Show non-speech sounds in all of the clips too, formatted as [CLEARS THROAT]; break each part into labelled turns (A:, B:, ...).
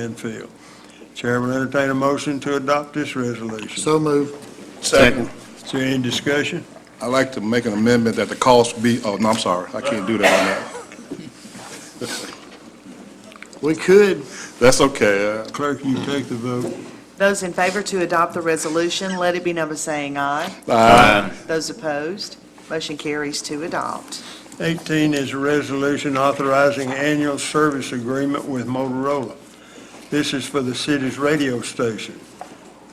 A: landfill. Chair will entertain a motion to adopt this resolution.
B: So move.
C: Second.
A: Is there any discussion?
C: I'd like to make an amendment that the cost be, oh, no, I'm sorry, I can't do that on
B: We could.
C: that. That's okay. uh,
A: Clerk, will you take the vote?
D: Those in favor to adopt the resolution, let it be number saying aye. Those opposed, motion carries to adopt.
A: 18 is a resolution authorizing annual service agreement with Motorola. This is for the city's radio station,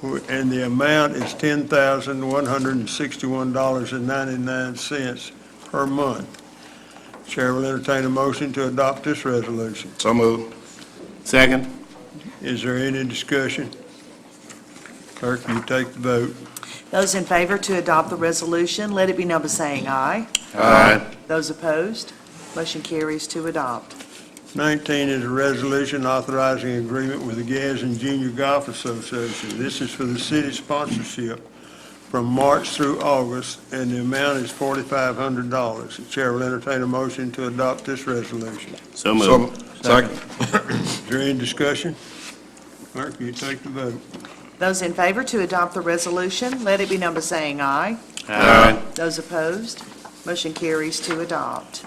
A: wh- and the amount is $10,161.99 per month. Chair will entertain a motion to adopt this resolution.
C: So moved. Second.
A: Is there any discussion? Clerk, will you take the vote?
D: Those in favor to adopt the resolution, let it be number saying aye.
C: Aye.
D: Those opposed, motion carries to adopt.
A: 19 is a resolution authorizing agreement with the Gadsden Junior Golf Association. This is for the city sponsorship from March through August, and the amount is $4,500. The chair will entertain a motion to adopt this resolution.
C: So moved. Second.
A: Is there any discussion? Clerk, will you take the vote?
D: Those in favor to adopt the resolution, let it be number saying aye.
C: Aye.
D: Those opposed, motion carries to adopt.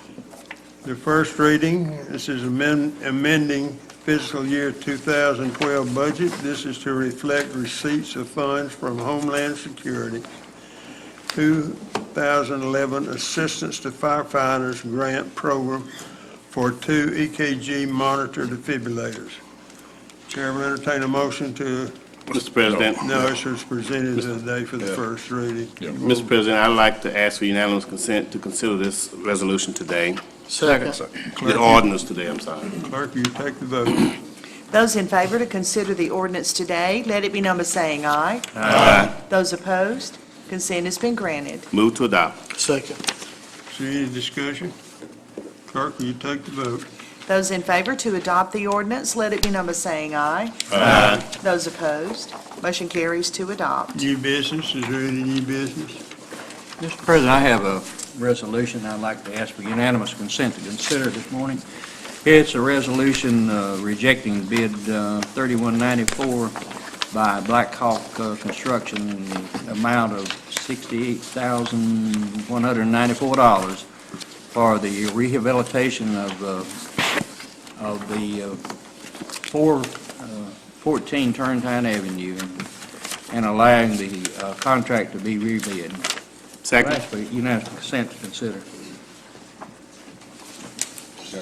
A: The first reading, this is amend- amending fiscal year 2012 budget. This is to reflect receipts of funds from Homeland Security, 2011 Assistance to Firefighters Grant Program for two EKG monitor defibrillators. Chair will entertain a motion to,
E: Mr. President,
A: no, this was presented today for the
C: Yeah.
A: first reading.
E: Mr. President, I'd like to ask for unanimous consent to consider this resolution today,
B: Second.
E: the ordinance today, I'm sorry.
A: Clerk, will you take the vote?
D: Those in favor to consider the ordinance today, let it be number saying aye.
E: Aye.
D: Those opposed, consent has been granted.
E: Move to adopt.
B: Second.
A: Is there any discussion? Clerk, will you take the vote?
D: Those in favor to adopt the ordinance, let it be number saying aye.
E: Aye.
D: Those opposed, motion carries to adopt.
A: New business, is there any new business?
F: Mr. President, I have a resolution I'd like to ask for unanimous consent to consider this morning. It's a resolution uh, rejecting bid uh, 3194 by Black Hawk uh, Construction in the amount of $68,194 for the rehabilitation of, uh, of the uh, four, uh, 14 Turntown Avenue and allowing the uh, contract to be rebid.
E: Second.
F: Ask for unanimous consent to consider.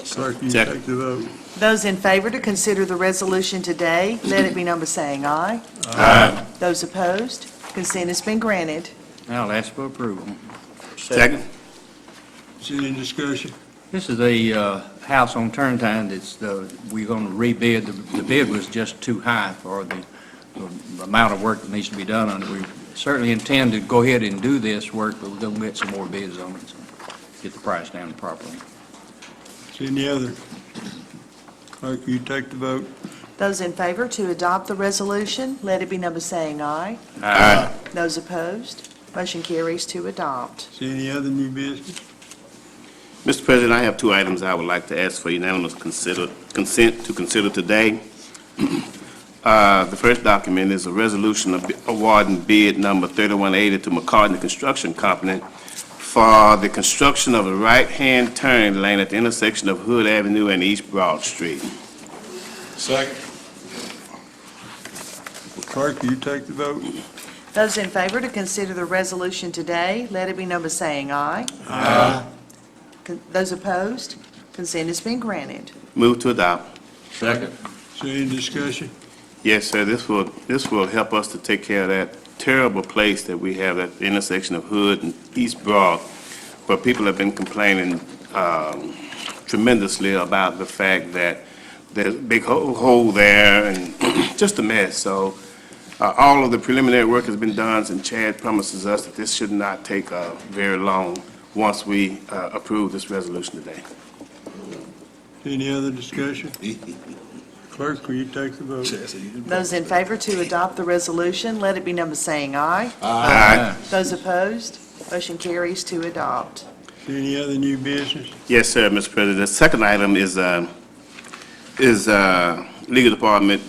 A: Clerk, will you
E: Second.
A: take the vote?
D: Those in favor to consider the resolution today, let it be number saying aye.
E: Aye.
D: Those opposed, consent has been granted.
F: Now, I'll ask for approval.
E: Second.
A: Is there any discussion?
F: This is a uh, house on Turntine that's, uh, we're going to rebid. The- The bid was just too high for the the amount of work that needs to be done on it. We certainly intend to go ahead and do this work, but we're going to get some more bids on it, so get the price down properly.
A: Is there any other? Clerk, will you take the vote?
D: Those in favor to adopt the resolution, let it be number saying aye.
E: Aye.
D: Those opposed, motion carries to adopt.
A: Is there any other new business?
E: Mr. President, I have two items I would like to ask for unanimous consider- consent to consider today. [CLEARS THROAT] Uh, The first document is a resolution of- awarding bid number 3180 to McCartney Construction Company for the construction of a right-hand turn lane at the intersection of Hood Avenue and East Broad Street.
C: Second.
A: Clerk, will you take the vote?
D: Those in favor to consider the resolution today, let it be number saying aye. Aye. Those opposed, consent has been granted.
E: Move to adopt.
A: Is there any discussion?
E: Yes, sir, this will, this will help us to take care of that terrible place that we have at the intersection of Hood and East Broad, where people have been complaining um, tremendously about the fact that there's a big ho- hole there and [CLEARS THROAT] just a mess. So uh, all of the preliminary work has been done, and Chad promises us that this should not take uh, very long once we uh, approve this resolution today.
A: Any other discussion? Clerk, will you take the vote?
D: Those in favor to adopt the resolution, let it be number saying aye.
E: Aye.
D: Those opposed, motion carries to adopt.
A: Is there any other new business?
E: Yes, sir, Mr. President. The second item is, uh, is uh, legal department